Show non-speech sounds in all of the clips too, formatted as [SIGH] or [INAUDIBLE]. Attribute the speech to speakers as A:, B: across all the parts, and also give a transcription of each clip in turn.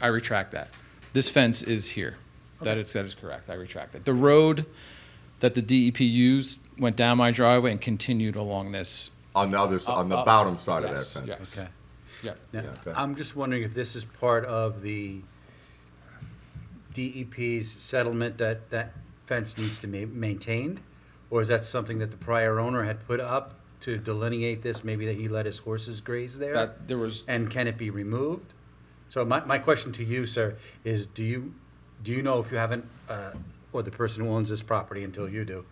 A: I retract that. This fence is here. That is, that is correct. I retract it. The road that the DEP used went down my driveway and continued along this.
B: On the other, s- on the
A: up-
B: bottom side of that
A: Oh, yes,
B: fence.
A: Yes.
C: Okay.
A: Yep.
C: Now,
B: Yeah, go ahead.
C: I'm just wondering if this is part of the DEP's settlement that that fence needs to be maintained? Or is that something that the prior owner had put up to delineate this, maybe that he let his horses graze there?
A: That, there was,
C: And can it be removed? So my, my question to you, sir, is do you, do you know if you haven't, uh, or the person who owns this property until you do?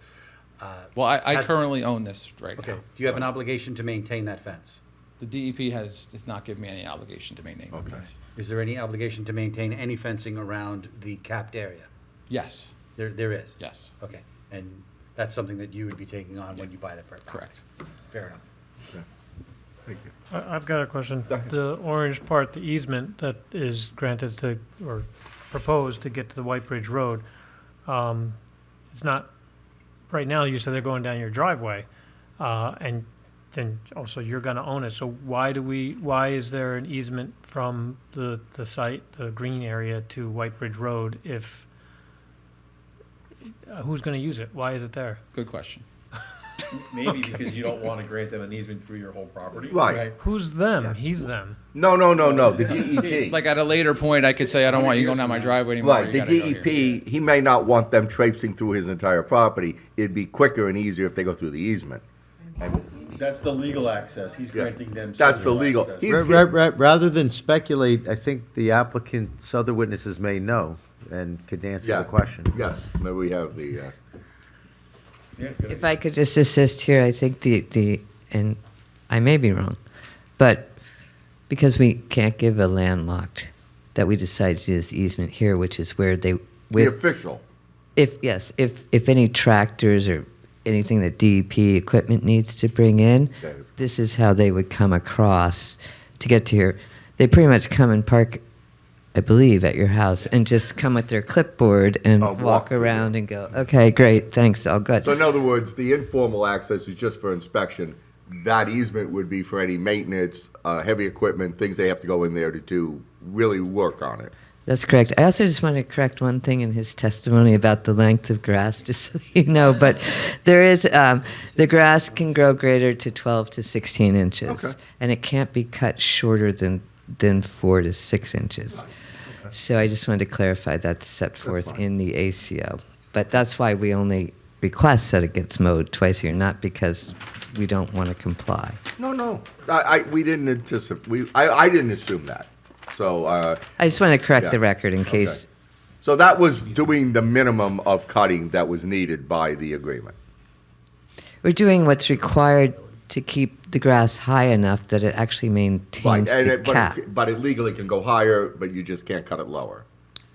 C: uh,
A: well, I, I
C: has-
A: currently own this right
C: Okay,
A: now.
C: do you have an obligation to maintain that fence?
A: The DEP has, does not give me any obligation to maintain the
B: Okay.
A: fence.
C: Is there any obligation to maintain any fencing around the capped area?
A: Yes,
C: There, there is?
A: yes,
C: Okay, and that's something that you would be taking on when you buy the property?
A: correct.
C: Fair enough.
B: Thank you.
D: I- I've got a question. The orange part, the easement that is granted to, or proposed to get to the White Bridge Road, um, it's not, right now, you said they're going down your driveway, uh, and then also you're gonna own it, so why do we, why is there an easement from the, the site, the green area to White Bridge Road if, uh, who's gonna use it? Why is it there?
A: Good question.
E: Maybe because you don't want to grant them an easement through your whole property.
B: Right.
D: Who's them? He's them.
B: No, no, no, no, the E
A: [LAUGHS]
B: DEP.
A: Like at a later point, I could say, I don't want you going down my driveway anymore.
B: Right,
A: You
B: the E
A: gotta go here."
B: DEP, he may not want them traipsing through his entire property. It'd be quicker and easier if they go through the easement.
E: That's the legal access. He's granting them.
B: That's the
E: certain
B: legal-
E: access.
B: he's-
F: Ra-
B: Please
F: ra-
B: give-
F: ra- Rather than speculate, I think the applicant's other witnesses may know and could answer
B: Yeah.
F: the question.
B: Yes, maybe we have the, uh,
E: Yeah,
G: If I could just assist here, I think the, the and I may be wrong, but because we can't give a landlocked that we decided to do this easement here, which is where they
B: the
G: with
B: official.
G: if yes, if if any tractors or anything that DEP equipment needs to bring in,
B: Okay.
G: this is how they would come across to get to here. They pretty much come and park, I believe, at your house and just come with their clipboard and
B: Oh, walk
G: walk,
B: through.
G: around and go, okay, great, thanks, all good.
B: So in other words, the informal access is just for inspection. That easement would be for any maintenance, uh, heavy equipment, things they have to go in there to do, really work on it.
G: That's correct. I also just want to correct one thing in his testimony about the length of grass, [LAUGHS] just so you know. But there is um, the grass can grow greater to 12 to 16 inches,
B: Okay.
G: and it can't be cut shorter than than four to six inches. So I just wanted to clarify that's set forth in the ACO. But that's why we only request that it gets mowed twice a year, not because we don't want to comply.
B: No, no, I, I, we didn't anticipate, we, I, I didn't assume that. So, uh,
G: I just want to correct
B: Yeah.
G: the record in case
B: so that was doing the minimum of cutting that was needed by the agreement.
G: We're doing what's required to keep the grass high enough that it actually maintains
B: and
G: the
B: it-
G: cap.
B: but, it, but it legally can go higher, but you just can't cut it lower.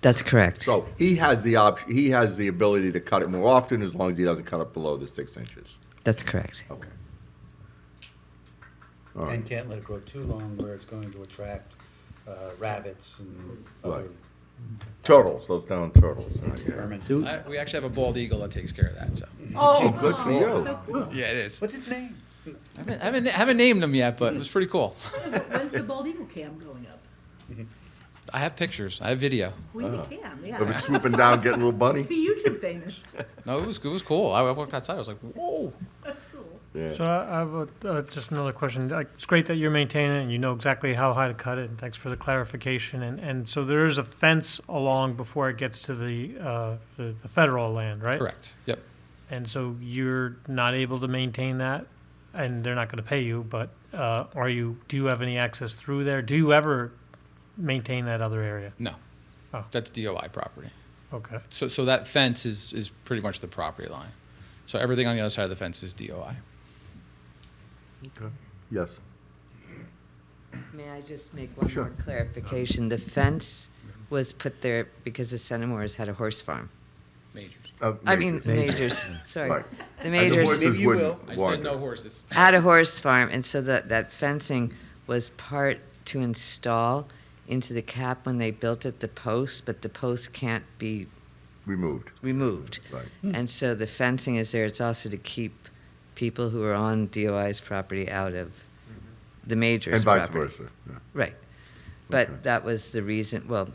G: That's correct.
B: So he has the option. He has the ability to cut it more often as long as he doesn't cut it below the six inches.
G: That's correct.
B: Okay.
C: And can't let it grow too long where it's going to attract uh, rabbits and
B: Right.
C: other
B: Turtles, those down turtles.
C: vermin.
A: I- We actually have a bald eagle that takes care of that, so.
B: Oh, good for you.
A: Yeah, it is.
C: What's its name?
A: I haven't, I haven't, I haven't named them yet, but it was pretty cool.
H: When's the bald eagle cam going up?
A: I have pictures. I have video.
H: We need a cam,
B: It was
H: yeah. [LAUGHS]
B: swooping down, getting a little bunny.
H: Be YouTube famous.
A: No, it was it was cool. I walked outside. I was like, whoa.
H: That's cool.
D: So I I have a, uh, just another question. Like, It's great that you're maintaining it and you know exactly how high to cut it. And thanks for the clarification. And, and so there is a fence along before it gets to the, uh, the, the federal land, right?
A: Correct. Yep.
D: And so you're not able to maintain that and they're not going to pay you, but, uh, are you, do you have any access through there? Do you ever maintain that other area?
A: No,
D: Oh.
A: that's DOI property.
D: Okay.
A: So so that fence is is pretty much the property line. So everything on the other side of the fence is DOI.
B: Yes.
G: May I just make one
B: Sure.
G: more clarification? The fence was put there because the Centimores had a horse farm.
A: Majors.
B: Uh,
G: I mean,
B: major. [LAUGHS]
G: majors. Sorry,
B: Right. And
G: the
B: the
G: majors
B: horses
E: you
B: wouldn't
A: I
B: want
A: said
B: it.
A: no horses.
G: had a horse farm, and so that that fencing was part to install into the cap when they built it. The post, but the post can't be
B: Removed.
G: removed.
B: Right.
G: And so the fencing is there. It's also to keep people who are on DOI's property out of the major's
B: And vice
G: property.
B: versa. yeah.
G: Right. But that was the reason. Well,